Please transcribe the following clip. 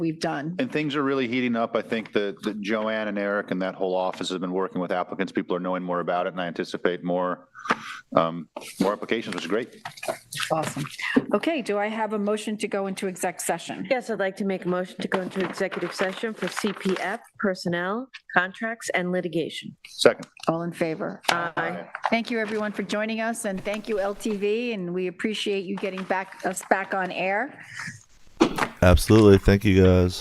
we've done. And things are really heating up. I think that, that Joanne and Eric and that whole office has been working with applicants. People are knowing more about it and I anticipate more, um, more applications, which is great. Awesome. Okay, do I have a motion to go into exec session? Yes, I'd like to make a motion to go into executive session for CPF, personnel, contracts, and litigation. Second. All in favor? Aye. Thank you, everyone, for joining us, and thank you, LTV, and we appreciate you getting back, us back on air. Absolutely. Thank you guys.